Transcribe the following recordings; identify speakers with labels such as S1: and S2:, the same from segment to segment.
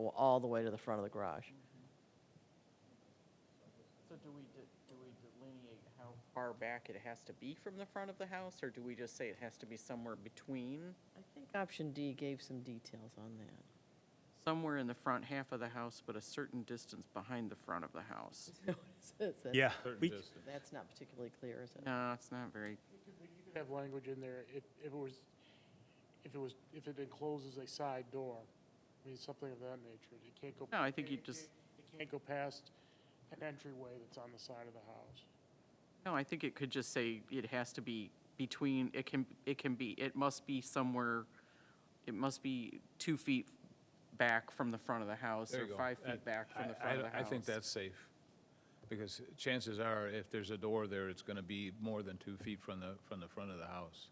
S1: the way to the front of the garage.
S2: So do we, de- do we delineate how far back it has to be from the front of the house, or do we just say it has to be somewhere between?
S1: I think option D gave some details on that.
S2: Somewhere in the front half of the house, but a certain distance behind the front of the house.
S1: That's-
S3: Yeah. we c-
S1: That's not particularly clear, is it?
S2: No, it's not very,
S4: could have language in there if, if it was, if it was, if it encloses a side door. I mean, something of that nature. It can't go.
S2: No, I think you
S4: it
S2: just-
S4: can't- It can't go past an entryway that's on the side of the house.
S2: no, I think it could just say it has to be between, it can, it can be, it must be somewhere, it must be two feet back from the front of the house,
S5: There
S2: or
S5: you go.
S2: five feet
S5: That-
S2: back from the
S5: I-
S2: front of
S5: I-
S2: the house.
S5: I think that's safe, because chances are, if there's a door there, it's going to be more than two feet from the, from the front of the house.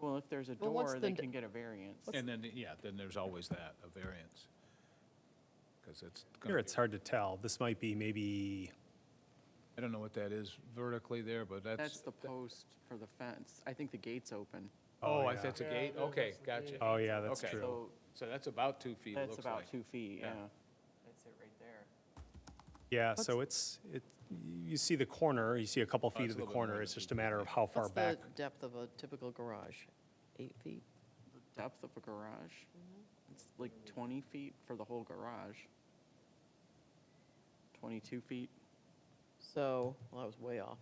S2: Well, if there's a
S1: Well, what's
S2: door, they
S1: the-
S2: can get a variance.
S5: And then, yeah, then there's always that, a variance, because it's. gonna
S3: Here,
S5: be-
S3: it's hard to tell. This might be maybe,
S5: I don't know what that is vertically there, but that's.
S2: That's the post for the fence. I think the gate's open.
S3: Oh,
S5: Oh, I-
S3: yeah.
S5: that's a
S4: Yeah,
S5: gate?
S4: that-
S5: Okay,
S4: that's the
S5: gotcha.
S4: gate.
S3: oh, yeah, that's
S5: Okay.
S3: true.
S2: So
S5: So that's about two feet, it
S2: that's
S5: looks
S2: about
S5: like.
S2: two feet, yeah.
S5: Yeah.
S2: That's it right there.
S3: Yeah, so it's, it, you see the corner, you see a couple feet
S5: Oh, it's
S3: of
S5: a
S3: the
S5: little bit more
S3: corner.
S5: than
S3: It's
S5: two
S3: just a matter of how far
S1: What's the
S3: back.
S1: depth of a typical garage? Eight feet?
S2: The depth of a garage,
S1: Mm-hmm.
S2: it's like 20 feet for the whole garage. 22 feet.
S1: So, well, I was way off.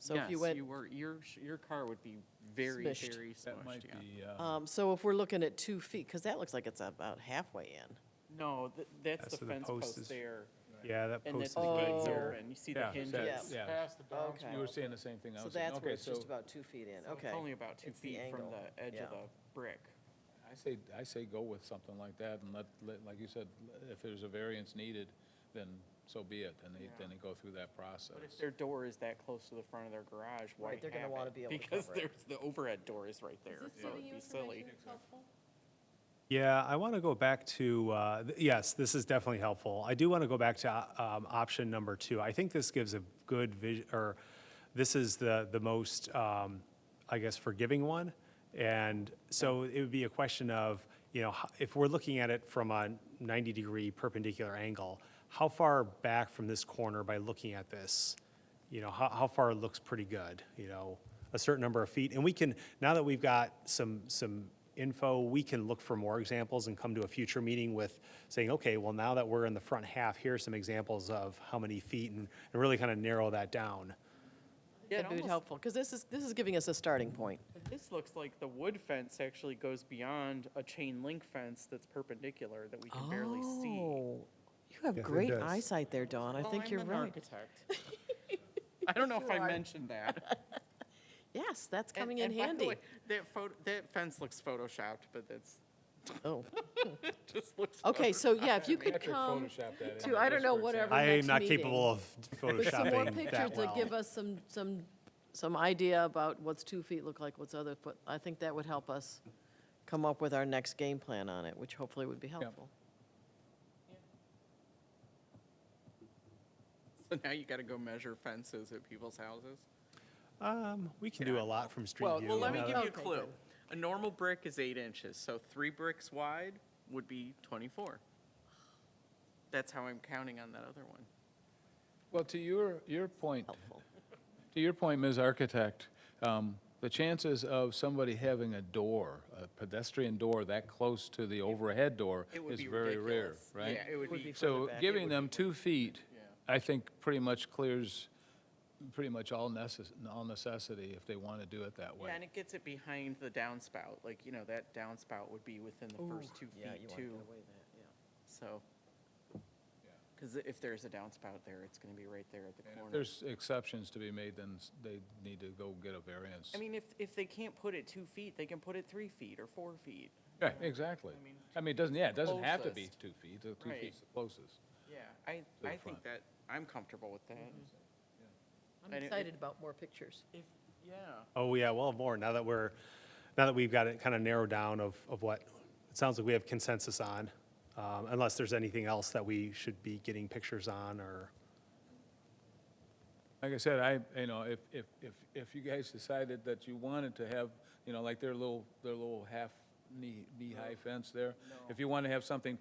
S1: So if you
S2: Yes,
S1: went,
S2: you were, your, sh- your car would be very,
S1: Smushed.
S2: very
S5: That
S2: smushed,
S5: might
S2: yeah.
S5: be, uh,
S1: um, so if we're looking at two feet, because that looks like it's about halfway in.
S2: No, th-
S3: Yeah,
S2: that's
S3: so
S2: the
S3: the
S2: fence
S3: post
S2: post
S3: is-
S2: there,
S3: Yeah, that
S2: and
S3: post
S2: that's
S3: is
S2: the
S1: gate
S3: good
S2: gate's
S1: there.
S3: there.
S2: open. You see the
S5: yeah,
S2: hinges.
S5: that's-
S1: Yeah.
S5: yeah,
S4: Past the down.
S1: Okay.
S5: you were saying the same thing I
S1: So
S5: was saying.
S1: that's where
S5: Okay,
S1: it's just
S5: so
S1: about two feet in,
S2: So
S1: okay.
S2: It's only about two
S1: It's the
S2: feet from
S1: angle,
S2: the edge of
S1: yeah.
S2: the brick.
S5: I say, I say go with something like that and let, let, like you said, if there's a variance needed, then so be it, then they, then they go through that process.
S2: But if their door is that close to the front of their garage, why
S1: Right, they're gonna
S2: have
S1: wanna
S2: it?
S1: be able to
S2: Because
S1: cover it.
S2: there's, the overhead door is right there, so it'd be silly.
S3: Yeah, I want to go back to, uh, th- yes, this is definitely helpful. I do want to go back to uh, um, option number two. I think this gives a good vision, or this is the, the most, um, I guess, forgiving one. And so it would be a question of, you know, ho- if we're looking at it from a 90-degree perpendicular angle, how far back from this corner by looking at this? you know, how, how far it looks pretty good, you know, a certain number of feet. And we can, now that we've got some, some info, we can look for more examples and come to a future meeting with saying, okay, well, now that we're in the front half, here's some examples of how many feet and, and really kind of narrow that down.
S2: Yeah, it
S1: That'd be
S2: almost-
S1: helpful, because this is, this is giving us a starting point.
S2: This looks like the wood fence actually goes beyond a chain link fence that's perpendicular that we can barely see.
S1: Oh, you have great
S3: does.
S1: eyesight there, Dawn. I
S2: Well,
S1: think
S2: I'm
S1: you're
S2: an
S1: right.
S2: architect. I don't know if I mentioned that.
S1: Yes, that's
S2: And-
S1: coming in
S2: and by the
S1: handy.
S2: way, That photo, that fence looks photoshopped, but that's,
S1: Oh,
S2: it just looks.
S1: okay, so yeah, if you could
S5: Patrick
S1: come
S5: photoshopped that in
S1: to,
S5: there
S1: I
S5: just
S1: don't know,
S5: for
S1: whatever
S3: I am
S1: next
S3: not
S1: meeting
S3: capable of
S1: With some more
S3: photoshopping
S1: pictures
S3: that
S1: to give
S3: well.
S1: us some, some, some idea about what's two feet look like, what's other foot. I think that would help us come up with our next game plan on it, which hopefully would be helpful.
S2: So now you gotta go measure fences at people's houses.
S3: Um, we can do a lot from street
S2: Well,
S3: view. Uh,
S2: well, let me
S3: Now
S2: give
S3: that-
S2: you a
S1: Okay,
S2: clue.
S1: good.
S2: A normal brick is eight inches, so three bricks wide would be twenty-four. That's how I'm counting on that other one.
S5: Well, to your, your point,
S1: Helpful.
S5: to your point, Ms. Architect, um, the chances of somebody having a door, a pedestrian door that close to the overhead door
S2: It would
S5: is
S2: be
S5: very rare,
S2: ridiculous.
S5: right?
S2: Yeah, it would
S1: Would
S2: be
S1: be further
S5: So
S1: back.
S5: giving them two feet, I think pretty much clears, pretty much all necess, all necessity if they want to do it that way.
S2: Yeah, and it gets it behind the downspout, like, you know, that downspout would be within the first two
S1: Yeah, you
S2: feet
S1: want to
S2: too,
S1: get away that,
S2: so. Because if there's a downspout there, it's gonna be right there at the
S5: And if
S2: corner.
S5: there's exceptions to be made, then s- they need to go get a variance.
S2: I mean, if, if they can't put it two feet, they can put it three feet or four feet.
S5: Yeah, exactly. I mean, it doesn't, yeah, it doesn't have to be
S2: Closest.
S5: two feet, the two
S2: Right.
S5: feet's the closest.
S2: Yeah. I,
S5: the
S2: I think
S5: front.
S2: that, I'm comfortable with that.
S1: yeah.
S2: And
S1: I'm
S2: it-
S1: excited about more pictures.
S2: Mm-hmm. If, yeah.
S3: Oh, yeah, well, more, now that we're, now that we've got it kind of narrowed down of, of what, it sounds like we have consensus on, um, unless there's anything else that we should be getting pictures on or,
S5: Like I said, I, you know, if, if, if, if you guys decided that you wanted to have, you know, like their little, their little half knee, knee-high fence there, if you want to have something